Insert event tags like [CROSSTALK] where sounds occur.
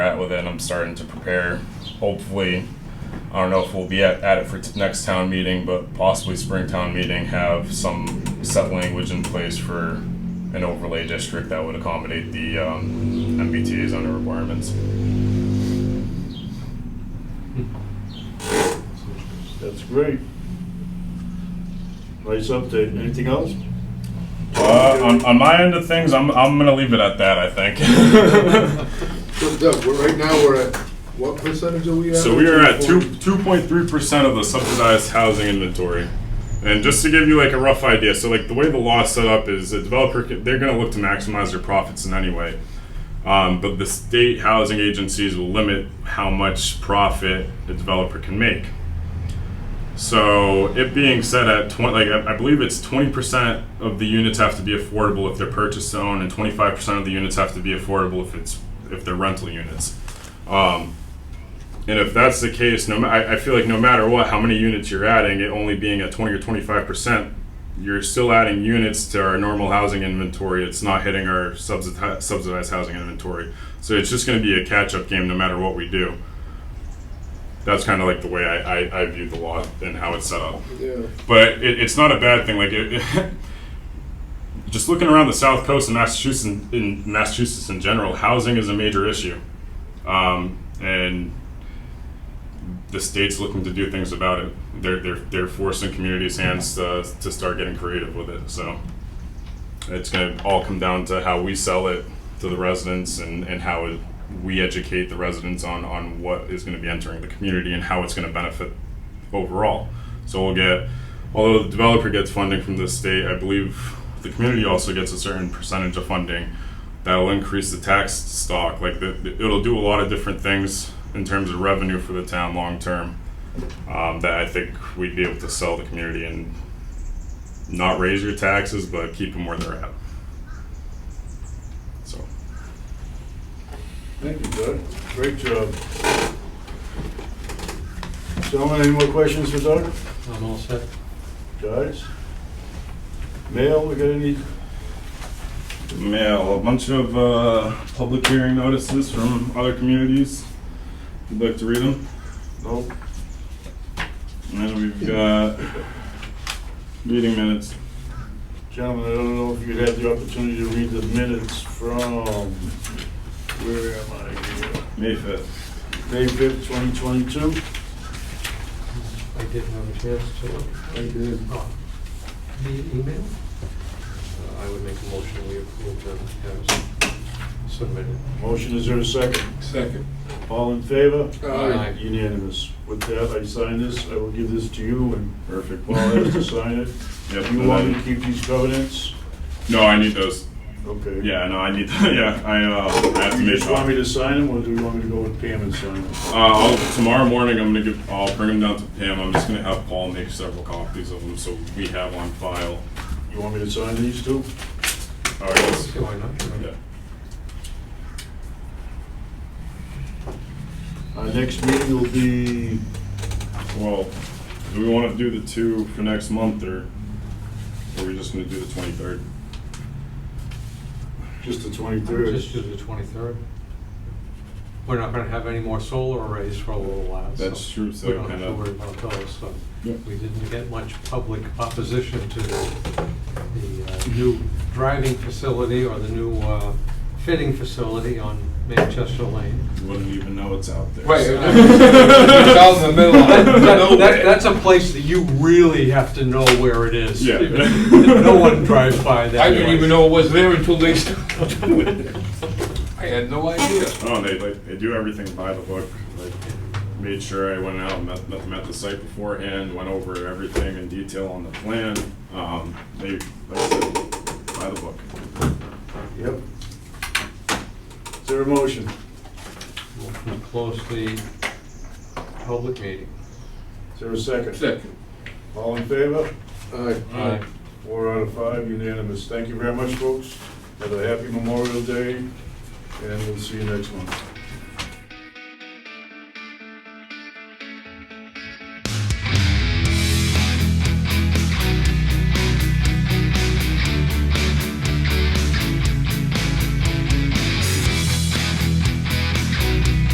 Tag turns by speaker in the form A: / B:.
A: at with it. and I'm starting to prepare. Hopefully, I don't know if we'll be at, at it for t- next town meeting, but possibly spring town meeting have some set language in place for an overlay district that would accommodate the um, MBTA's under requirements.
B: That's great. Nice update. Anything else?
A: Uh, on, on my end of things, I'm, I'm gonna leave it at that. I think. [LAUGHS]
C: So Doug, we're, right now, we're at, what percentage are we at?
A: So we are at two two point three percent of the subsidized housing inventory. And just to give you like a rough idea, so like the way the law is set up is a developer can- they're going to look to maximize their profits in any way, um, but the state housing agencies will limit how much profit the developer can make. So it being said at twenty, like I- I believe it's twenty percent of the units have to be affordable if they're purchase to own, and twenty five percent of the units have to be affordable if it's if they're rental units. Um, and if that's the case, no, ma- I, I feel like no matter what, how many units you're adding, it only being at 20 or 25 percent, you're still adding units to our normal housing inventory. It's not hitting our subsidized, subsidized housing inventory. So it's just going to be a catch-up game no matter what we do. That's kind of like the way I, I, I view the law and how it's set up
C: Yeah.
A: but it, it's not a bad thing. Like, it, [LAUGHS] just looking around the South Coast and Massachusetts, in Massachusetts in general, housing is a major issue, um, and the state's looking to do things about it. They're they're they're forcing communities' hands to, to start getting creative with it. So it's going to all come down to how we sell it to the residents and and how it, we educate the residents on on what is going to be entering the community and how it's going to benefit overall. So we'll get, although the developer gets funding from the state, I believe the community also gets a certain percentage of funding that'll increase the tax stock. Like the, the- it'll do a lot of different things in terms of revenue for the town long term. Um, that I think we'd be able to sell the community and not raise your taxes, but keep them where they're at. So.
B: Thank you, Doug. Great job. Gentlemen, any more questions for Doug?
D: I'm all set.
B: Guys? Mail, we got any?
A: mail, a bunch of uh, public hearing notices from other communities. If you'd like to read them.
B: No?
A: And then we've got meeting minutes.
B: Gentlemen, I don't know if you'd have the opportunity to read the minutes from, where am I here?
A: May 5th.
B: May 5th, 2022.
D: I didn't have a chance to,
C: I did.
D: oh, the email? Uh, I would make a motion, we approve them as submitted.
B: Motion, is there a second?
C: Second.
B: All in favor?
C: Aye.
B: Unanimous. With that, I sign this, I will give this to you, and Perfect. Paul has to sign it.
A: [LAUGHS] Yep.
B: uh, You
A: and
B: want me to
A: then-
B: keep these covenants?
A: No, I need those.
B: Okay.
A: Yeah, no, I need. [LAUGHS] yeah, I, uh, I have to
B: You
A: make.
B: just want me to
A: copies.
B: sign them, or do you want me to go with Pam and sign them?
A: Uh, I'll, tomorrow morning, I'm gonna give. I'll bring them down to Pam. I'm just gonna have Paul make several copies of them so we have on file.
B: You want me to sign these too?
A: All right. let's-
D: Why not?
A: Yeah.
B: Our Uh, next meeting will be,
A: Well, do we want to do the two for next month, or or are we just going to do the twenty-third?
B: just the
D: Just do
B: 23rd.
D: the 23rd. We're not going to have any more solar arrays for a little while. so
A: That's true, so
D: We don't have
A: kinda-
D: to worry about those, so
A: Yep.
D: we didn't get much public opposition to the the, uh, new driving facility or the new uh, fitting facility on Manchester Lane.
A: You wouldn't even know it's out there.
C: [LAUGHS]
D: Right,
A: so-
D: it's
C: out in the middle of
D: [LAUGHS] That- that-
A: Nowhere.
D: that- That's a place that you really have to know where it is.
A: Yeah.
D: No one drives by that.
C: I didn't
D: way.
C: even know it was there until they started doing
D: [LAUGHS]
C: it. I had no idea.
A: Oh, they like they do everything by the book. Like made sure I went out and met, met them at the site beforehand, went over everything in detail on the plan. Um, they like I said, by the book.
B: Yep. Is there a motion?
D: Motion to Close the public meeting.
B: Is there a second?
C: Second.
B: All in favor?
C: Aye.
D: Aye.
B: Four out of five unanimous. Thank you very much, folks. Have a happy Memorial Day, and we'll see you next month.